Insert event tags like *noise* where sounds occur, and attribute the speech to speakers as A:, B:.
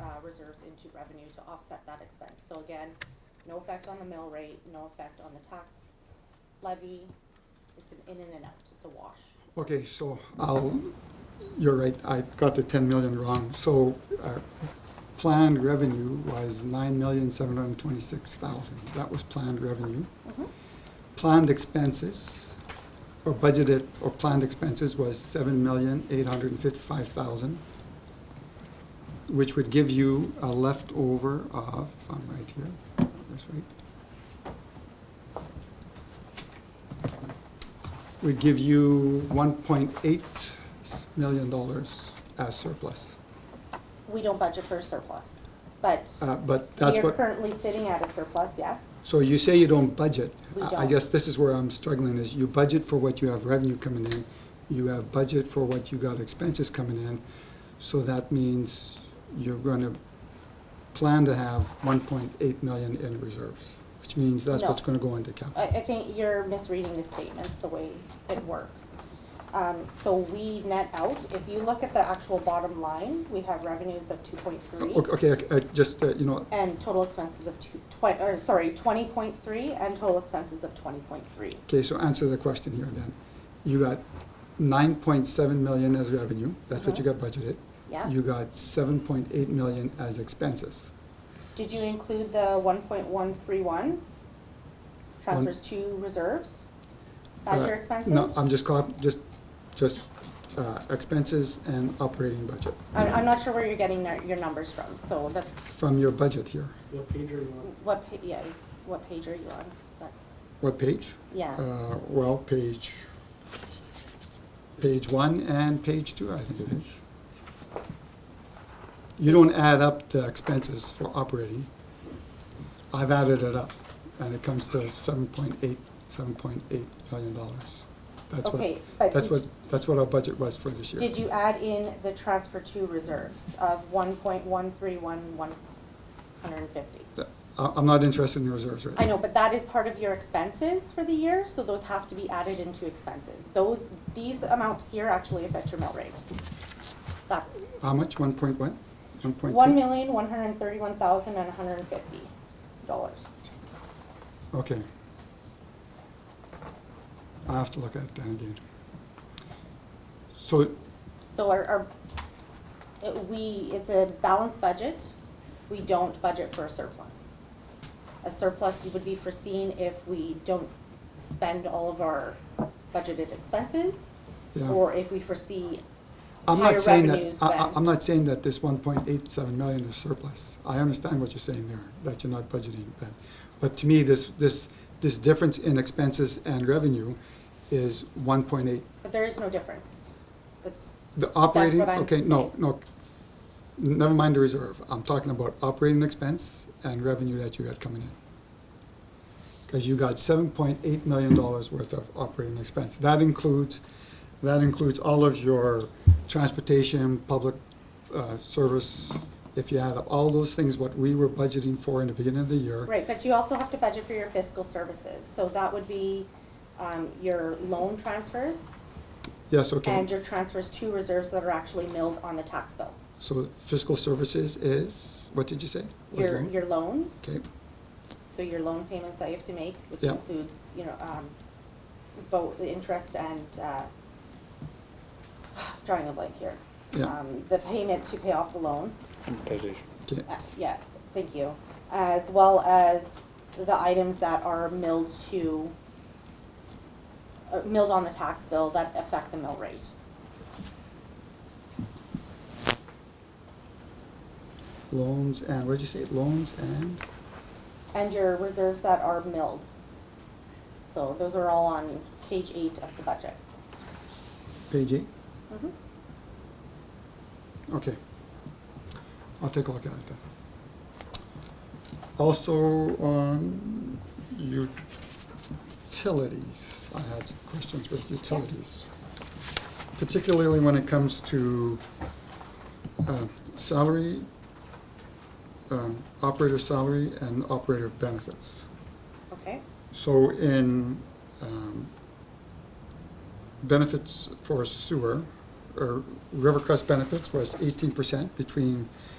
A: uh, reserves into revenue to offset that expense. So again, no effect on the mill rate, no effect on the tax levy. It's an in and an out, it's a wash.
B: Okay, so I'll, you're right, I got the ten million wrong. So our planned revenue was nine million, seven hundred and twenty-six thousand. That was planned revenue. Planned expenses, or budgeted, or planned expenses was seven million, eight hundred and fifty-five thousand, which would give you a leftover of, if I'm right here, that's right, would give you one point eight million dollars as surplus.
A: We don't budget for a surplus, but
B: Uh, But
A: we
B: that's
A: are
B: what,
A: currently sitting at a surplus, yes?
B: so you say you don't budget.
A: We
B: I- I
A: don't.
B: guess this is where I'm struggling, is you budget for what you have revenue coming in, you have budget for what you got expenses coming in, so that means you're gonna plan to have one point eight million in reserves, which means that's
A: No.
B: what's gonna go into capital.
A: I, I think you're misreading the statements, the way it works. Um, so we net out, if you look at the actual bottom line, we have revenues of two point three
B: O- Oh, Okay, I- I just, uh, you know,
A: and total expenses of two, twen- or sorry, twenty point three and total expenses of twenty point three.
B: Okay, so answer the question here then. You got nine point seven million as revenue, that's what you got budgeted.
A: Uh-huh. Yeah.
B: You got seven point eight million as expenses.
A: Did you include the one point one three one? Transfers to reserves? As
B: Uh,
A: your expenses?
B: No, I'm just call, just, just, uh, expenses and operating budget,
A: I'm, I'm not sure where you're getting their- your numbers from, so that's,
B: from your budget here.
C: What page are you on?
A: what pa- yeah, what page are you on? That-
B: What page?
A: Yeah,
B: Uh, well, page, page one and page two, I think it is. You don't add up the expenses for operating. I've added it up, and it comes to seven point eight, seven point eight million dollars. That's
A: okay,
B: what,
A: but.
B: that's
A: did-
B: what, that's what our budget was for this year.
A: Did you add in the transfer to reserves of one point one three one one hundred and fifty?
B: Th- I, I'm not interested in reserves right now.
A: I know, but that is part of your expenses for the year, so those have to be added into expenses. Those, these amounts here actually affect your mill rate. That's
B: How much, one point what? One point
A: one
B: three?
A: million, one hundred and thirty-one thousand and hundred and fifty dollars.
B: Okay. I have to look at that again. So,
A: So our, our, it- we, it's a balanced budget, we don't budget for a surplus. A surplus would be foreseen if we don't spend all of our budgeted expenses,
B: yeah,
A: or if we foresee
B: I'm
A: higher
B: not saying that,
A: revenues
B: I, I,
A: than-
B: I'm not saying that this one point eight seven million is surplus. I understand what you're saying there, that you're not budgeting that. But to me, this, this, this difference in expenses and revenue is one point eight.
A: But there is no difference. That's,
B: The operating,
A: what I'm
B: okay, no,
A: saying.
B: no, never mind the reserve. I'm talking about operating expense and revenue that you got coming in. Because you got seven point eight million dollars worth of operating expense. That includes, that includes all of your transportation, public uh, service. If you add up all those things, what we were budgeting for in the beginning of the year.
A: right, but you also have to budget for your fiscal services. So that would be um, your loan transfers
B: Yes, okay.
A: and your transfers to reserves that are actually milled on the tax bill.
B: So fiscal services is, what did you say? Was
A: Your,
B: it-
A: your loans,
B: Okay,
A: so your loan payments that you have to make, which
B: Yeah.
A: includes, you know, um, both the interest and, uh, *sighs* drawing a blank here.
B: Yeah.
A: Um, The payment to pay off the loan.
B: okay.
A: Uh, Yes, thank you. As well as the items that are milled to, uh, milled on the tax bill that affect the mill rate.
B: Loans and, what did you say? Loans and?
A: And your reserves that are milled. So those are all on page eight of the budget.
B: Page eight?
A: Mhm.
B: Okay. I'll take a look at it then. Also, on utilities, I had some questions with utilities. Particularly when it comes to uh, salary, um, operator salary and operator benefits.
A: Okay,
B: So in um, benefits for sewer, or Rivercrest benefits was eighteen percent between